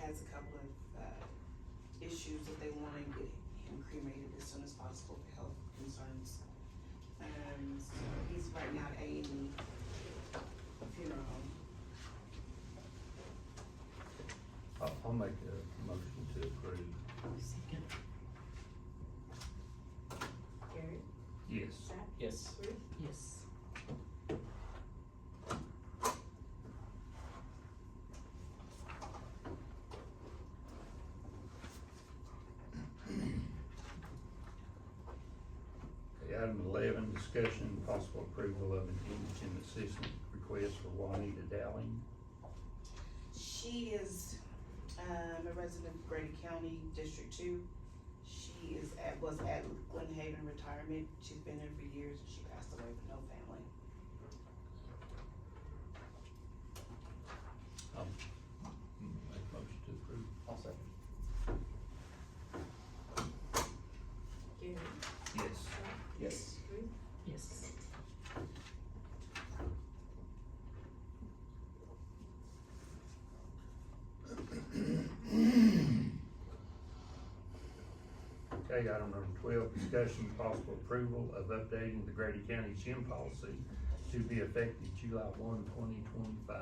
has a couple of, uh, issues that they wanna get him cremated as soon as possible for health concerns. Um, so he's right now at A and E funeral home. I'll, I'll make a motion to approve. Second. Gary, Yes. Zach, Yes. Ruth, Yes. Okay, item eleven, discussion and possible approval of an indigent assistance request for Juanita Dowling. She is, um, a resident of Grady County, District Two. She is at, was at Glen Haven Retirement. She's been there for years and she passed away with no family. Make a motion to approve. I'll second. Gary, Yes. Zach, Yes. Ruth, Yes. Okay, item number twelve, discussion and possible approval of updating the Grady County gym policy to be effective July 1, 2025.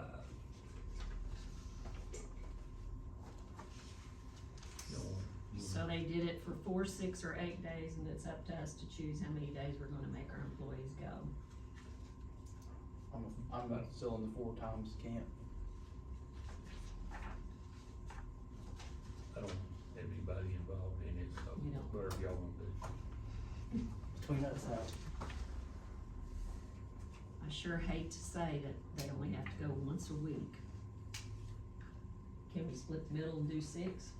You want- you So they did it for four, six, or eight days, and it's up to us to choose how many days we're gonna make our employees go. I'm, I'm uh, still in the four times camp. I don't have anybody involved in it, so We don't. whatever y'all want to do. Between us now. I sure hate to say that they only have to go once a week. Can we split the middle and do six?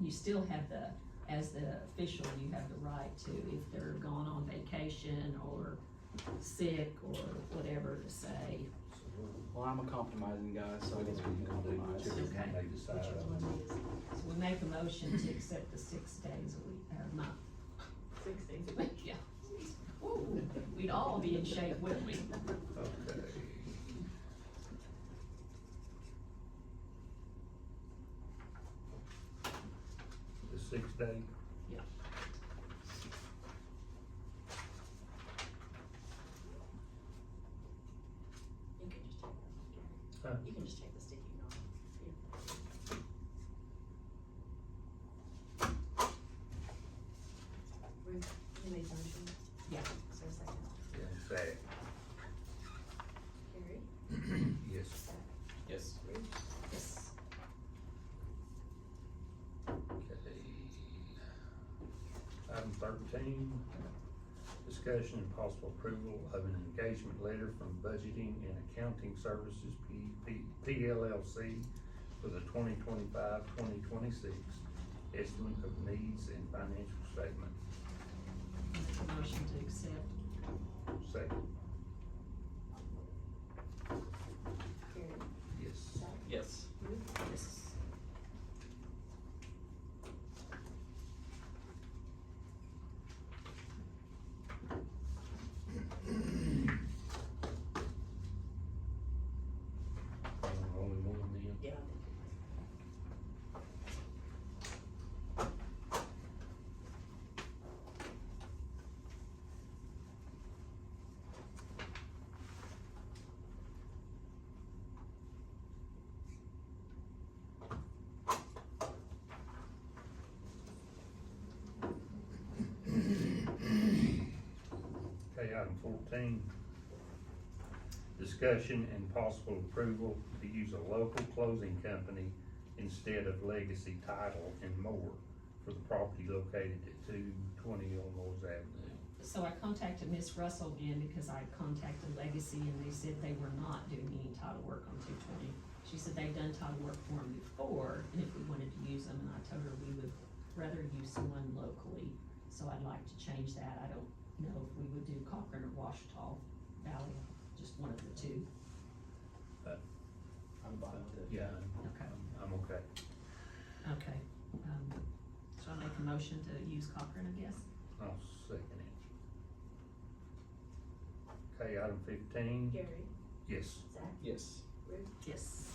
You still have the, as the official, you have the right to, if they're gone on vacation or sick or whatever, to say, So we'll- Well, I'm a compromising guy, so I guess we can compromise. Whichever one Okay. they decide Whichever on. one it is. So we make a motion to accept the six days a week, or a month. six days. Yeah. Ooh, We'd all be in shape, wouldn't we? Okay. The six day? Yeah. You can just take Huh? that off, Gary. You can just take the sticky note. Ruth, you made the motion? Yeah. Is there a second? Yeah, say, Gary, yes, Zach, Yes. Ruth, Yes. okay. Item thirteen, discussion and possible approval of an engagement letter from Budgeting and Accounting Services, P, P, PLLC, for the 2025-2026 estimate of needs and financial statement. Make a motion to accept. Second, Gary, yes. Zach, Yes. Ruth, Yes. Only one then? yeah. Okay, item fourteen. Discussion and possible approval to use a local closing company instead of Legacy Title and More for the property located at two twenty Elmore Avenue. So I contacted Miss Russell again because I contacted Legacy and they said they were not doing any title work on two twenty. She said they've done title work for them before and if we wanted to use them, and I told her we would rather use someone locally. So I'd like to change that. I don't know if we would do Cochran or Washita Valley, just one of the two. I'm fine with it. Yeah, Okay. I'm, I'm okay. Okay, um, so I make a motion to use Cochran, I guess? I'll second it. Okay, item fifteen, Gary, yes. Zach, Yes. Ruth, Yes.